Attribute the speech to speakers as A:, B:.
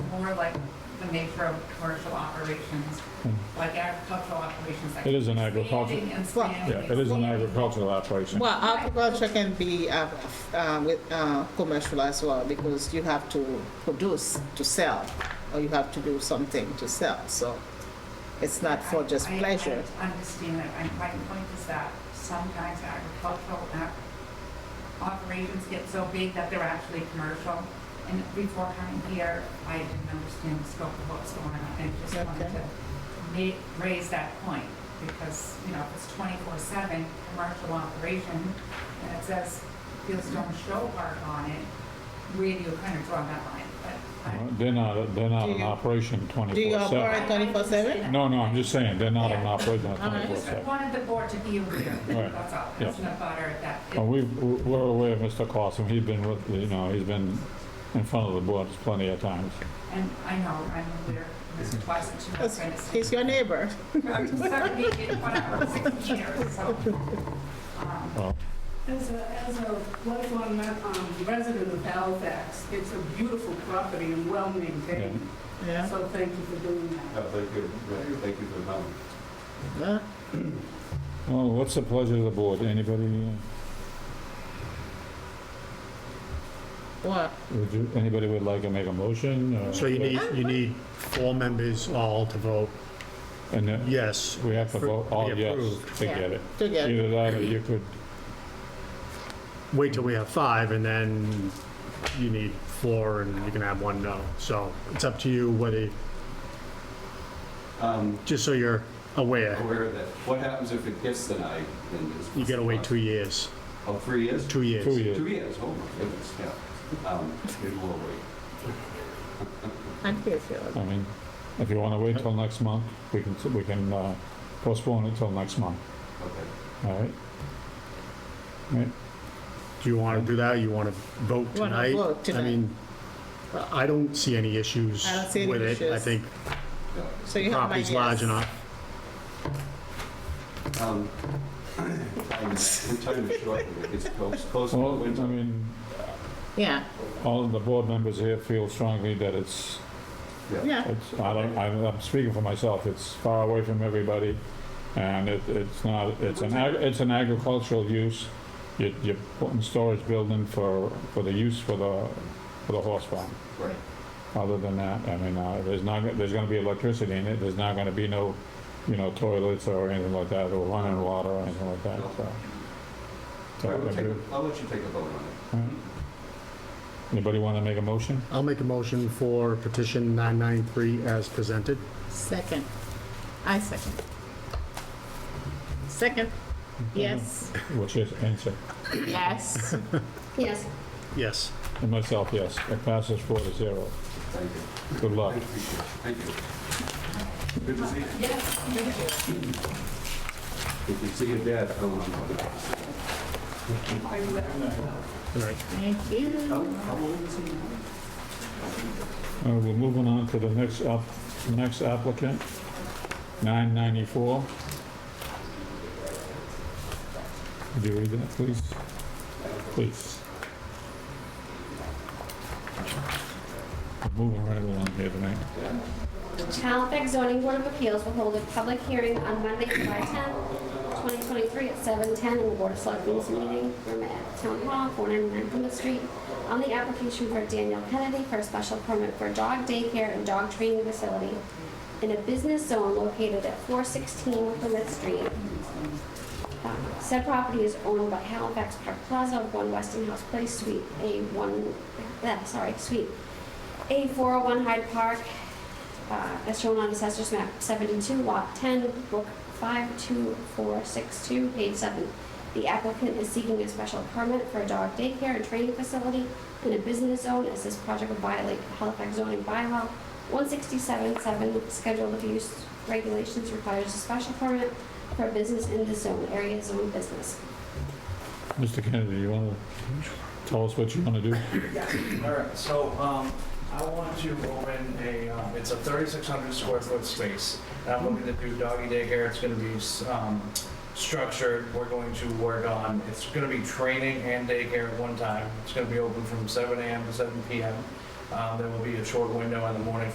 A: more like when they throw commercial operations, like agricultural operations. that
B: It is an
A: keep
B: agricultural-
A: expanding and expanding
B: Yeah,
A: and
B: it is an
A: expanding.
B: agricultural operation.
C: Well, agriculture can be uh, uh, with uh, commercial as well because you have to produce to sell, or you have to do something to sell. So it's not for just
A: I- I-
C: pleasure.
A: I understand that, and my point is that sometimes agricultural ap- operations get so big that they're actually commercial. And before coming here, I didn't understand the scope of what's going on, and just wanted
C: Okay.
A: to ma- raise that point, because, you know, if it's twenty-four seven commercial operation, and it says Fieldstone Show Park on it, where do you kind of draw that line? But I-
B: They're not, they're not
C: Do
B: in
C: you-
B: operation
C: Do you
B: twenty-four
C: operate
B: seven.
C: twenty-four seven?
B: No, no, I'm just saying, they're not in
A: Yeah.
B: operation
C: All right.
B: twenty-four
A: I
B: seven.
A: wanted the board to be aware,
B: Right.
A: that's all,
B: Yeah. Oh.
A: it's not butter at that.
B: Well, we, we're aware of Mr. Clausen, he's been with, you know, he's been in front of the board plenty of times.
A: And I know, I'm aware, Mr. Twice and two
C: He's your neighbor.
A: whatever, six years, so. um,
B: Well,
D: As a, as a lifelong um, resident of Halifax, it's a beautiful property and well-maintained.
C: Yeah.
D: So thank you for doing that.
E: No, thank you, Yeah, thank you for
C: Huh?
E: coming.
B: well, what's the pleasure of the board? Anybody, uh,
C: What?
B: would you, anybody would like to make a motion? or-
F: So you need, you need four members all to vote
B: And then
F: yes.
B: we have to vote all
F: Be
B: yes
F: approved.
B: to
C: Yeah.
B: get it.
C: Together.
B: Either that or you could,
F: Wait till we have five, and then you need four, and you can have one no. So it's up to you whether,
E: Um,
F: just so you're aware,
E: aware of that, what happens if it gets denied in this?
F: you gotta wait two years,
E: Oh, three years?
F: two years.
B: two years.
E: Two years, oh my goodness, yeah. Um, it will wait.
C: I feel you.
B: I mean, if you want to wait till next month, we can, we can uh, postpone it till next month,
E: Okay.
B: all right? Right,
F: Do you wanna do that, you wanna vote
C: Wanna
F: tonight?
C: vote
F: I
C: tonight.
F: mean, I don't see any issues
C: I don't see any
F: with it. I
C: issues.
F: think
E: yeah.
C: So
F: the
C: you have my yes.
F: property's large enough.
E: Um, time time is short, it's close, close to the
B: well, I
F: um,
E: winter.
B: mean,
C: Yeah,
B: all of the board members here feel strongly that it's,
C: yeah.
B: it's, I don't, I'm, I'm speaking for myself, it's far away from everybody, and it, it's not, it's an, ag- it's an agricultural use. You, you're putting storage building for, for the use for the, for the horse farm.
E: Right.
B: Other than that, I mean, uh, there's not, there's gonna be electricity in it, there's not gonna be no, you know, toilets or anything like that, or running water or anything like that, so. So,
E: All right, we'll take
B: every-
E: a- I'll let you take a vote on it.
B: Anybody wanna make a motion?
F: I'll make a motion for petition 993 as presented.
C: Second. I second. Second. Yes,
B: What's your answer?
C: yes.
G: Yes.
F: Yes.
B: And myself, yes, it passes four to zero.
E: Thank you.
B: Good
E: I
B: luck.
E: appreciate it. Thank you. Good to see you. If you see your dad, I want to.
F: All right.
C: Thank you.
E: How, how old is he now?
B: Uh, we're moving on to the next up, next applicant, nine ninety-four. Could you read that, please? Please. We're Moving right along here tonight.
G: The Halifax Zoning Board of Appeals will hold a public hearing on Monday, July 10, 2023, at 7:10 in the Board of Selectmen's meeting room at Town Hall, 499 Plymouth Street, on the application for Daniel Kennedy for a special permit for dog daycare and dog training facility in a business zone located at 416 Plymouth Street. Um, Said property is owned by Halifax Park Plaza, 1 Westinghouse Place, Suite A1, eh, sorry, Suite A401 Hyde Park, uh, as shown on Assessor's Map 72, Lot 10, Book 52462, page 7. The applicant is seeking a special permit for a dog daycare and training facility in a business zone as this project would violate Halifax zoning bylaw 167-7, Schedule of Use Regulations requires a special permit for a business in the zone, area zone business.
B: Mr. Kennedy, you wanna tell us what you wanna do?
H: All right, so um, I want to open a, um, it's a 3,600 square foot space. And I'm looking to do doggy daycare, it's going to be um, structured, we're going to work on, it's going to be training and daycare at one time. It's going to be open from 7 AM to 7 PM. Um, There will be a short window in the morning